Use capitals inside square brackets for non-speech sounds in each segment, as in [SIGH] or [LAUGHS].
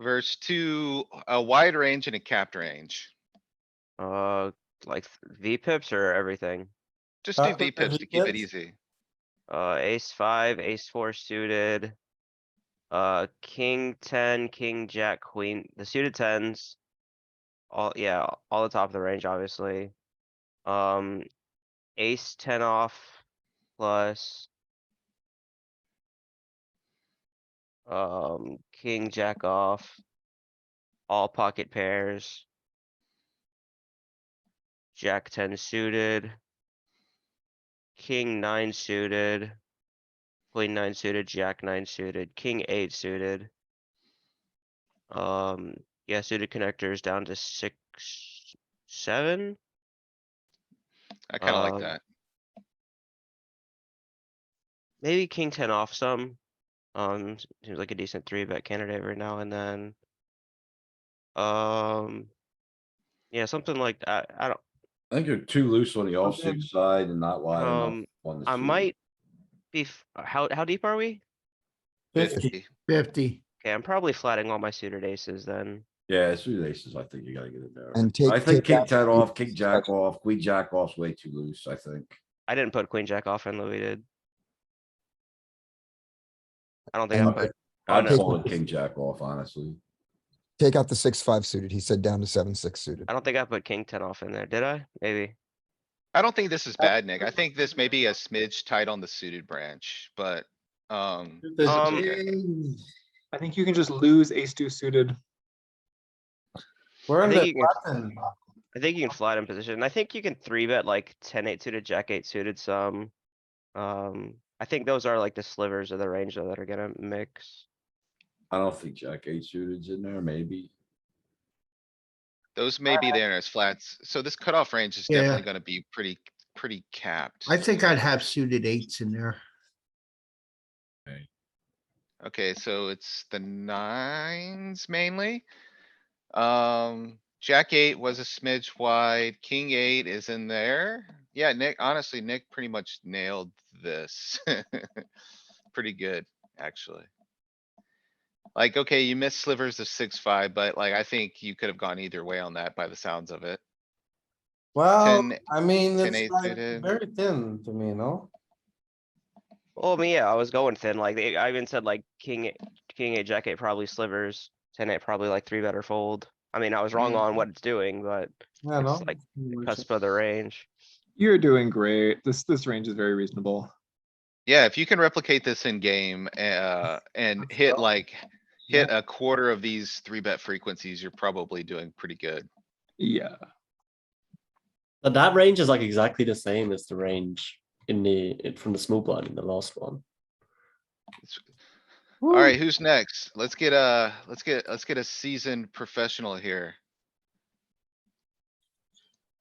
versus two, a wide range and a capped range. Uh, like V pips or everything? Just do Uh, V pips to keep it VPips? easy. Uh, ace five, ace four suited. Uh, king ten, king jack, queen, the suited tens. All, yeah, all the top of the range, obviously. Um, ace ten off plus. Um, king jack off. All pocket pairs. Jack ten suited. King nine suited. Queen nine suited, jack nine suited, king eight suited. Um, yeah, suited connectors down to six, seven, I kinda Uh, um, like that. maybe king ten off some. Um, s- seems like a decent three bet candidate every now and then. Um, yeah, something like that. I don't, I think you're too loose on the Okay. offsuit side and not wide enough Um, on the. I suit. might be, f- how, how deep are we? Fifty. Fifty. Okay, I'm probably flatting all my suited aces then. Yeah, suited aces, I think you gotta get it there. And I take- think take king out- ten off, king jack off, queen jack off's way too loose, I think. I didn't put queen jack off and Louis did. I don't think I And- put, I'm no. calling king jack off, honestly. Take out the six, five suited. He said down to seven, six suited. I don't think I put king ten off in there, did I? Maybe. I don't think this is bad, Nick. I think this may be a smidge tight on the suited branch, but, um. This- Um, I think you can just lose ace two suited. Where I think you can, I think you can flat in position. I think you can three bet like ten, eight suited, jack eight suited some. Um, I think those are like the slivers of the range though that are gonna mix. I don't think jack eight suited's in there, maybe. Those may be there as flats, so this cutoff range is Yeah. definitely gonna be pretty, pretty capped. I think I'd have suited eights in there. Okay, so it's the nines mainly. Um, jack eight was a smidge wide, king eight is in there. Yeah, Nick, honestly, Nick pretty much nailed this. [LAUGHS] Pretty good, actually. Like, okay, you missed slivers of six, five, but like, I think you could have gone either way on that by the sounds of it. Well, 10 I mean, 10 it's eight like suited. very thin to me, no? Well, I mean, yeah, I was going thin, like, they- I even said like king, eight- king eight, jack eight probably slivers, ten eight probably like three better fold. I mean, I was wrong on what it's doing, but Yeah, no? it's like the cusp of the range. You're doing great. This, this range is very reasonable. Yeah, if you can replicate this in game, uh, and hit like, hit a quarter of these three bet frequencies, you're probably doing pretty good. Yeah. [LAUGHS] And that range is like exactly the same as the range in the in- from the small blind in the last one. Alright, who's next? Let's get a, let's get, let's get a seasoned professional here.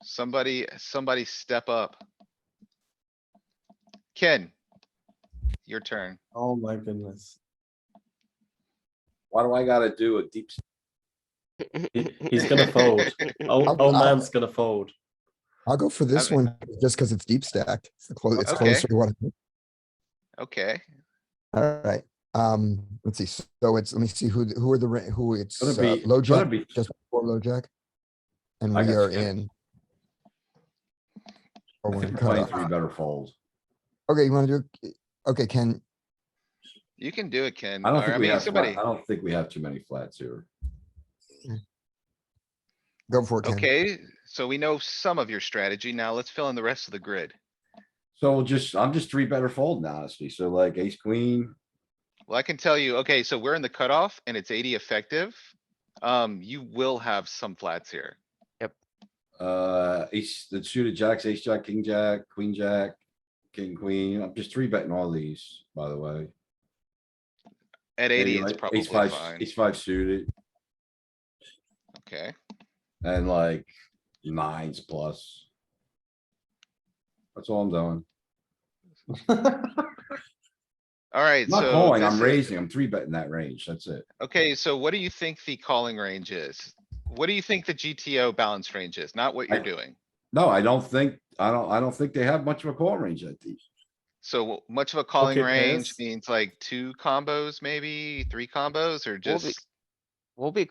Somebody, somebody step up. Ken. Your turn. Oh my goodness. Why do I gotta do a deep? s- He- He's gonna fold. Oh, I'm- oh I'm- man's gonna fold. I'll go for this Okay. one just because it's deep stacked. It's the close, it's Okay. closer to what. I- Okay, Alright, um, let's see. So it's, let me see who, who are the, ra- who it's, Gonna uh, be- low gonna jack, be- just before low jack. And I we got are you. in. I Or when think cut playing off. three better folds. Okay, you wanna do, okay, Ken, you can do it, Ken. I don't or, think we mean, have, flat- somebody. I don't think we have too many flats here. go for it, Ken. Okay, so we know some of your strategy. Now let's fill in the rest of the grid. So we'll just, I'm just three better folding honestly. So like ace, queen, Well, I can tell you, okay, so we're in the cutoff and it's eighty effective. Um, you will have some flats here. uh, ace, the suited jacks, ace, jack, king, jack, queen, jack, king, queen. I'm just three betting all these, by the way. At Maybe eighty, it's like probably ace five- fine. Ace five suited Okay, and like nines plus. That's all I'm doing. alright, I'm not so. calling, this I'm is- raising, I'm three betting that range, that's it. Okay, so what do you think the calling range is? What do you think the GTO balance range is? Not what you're I- doing. No, I don't think, I don't, I don't think they have much of a call range at these. So much of a calling Pocket range pairs. means like two combos, maybe three combos or Well, the- just We'll be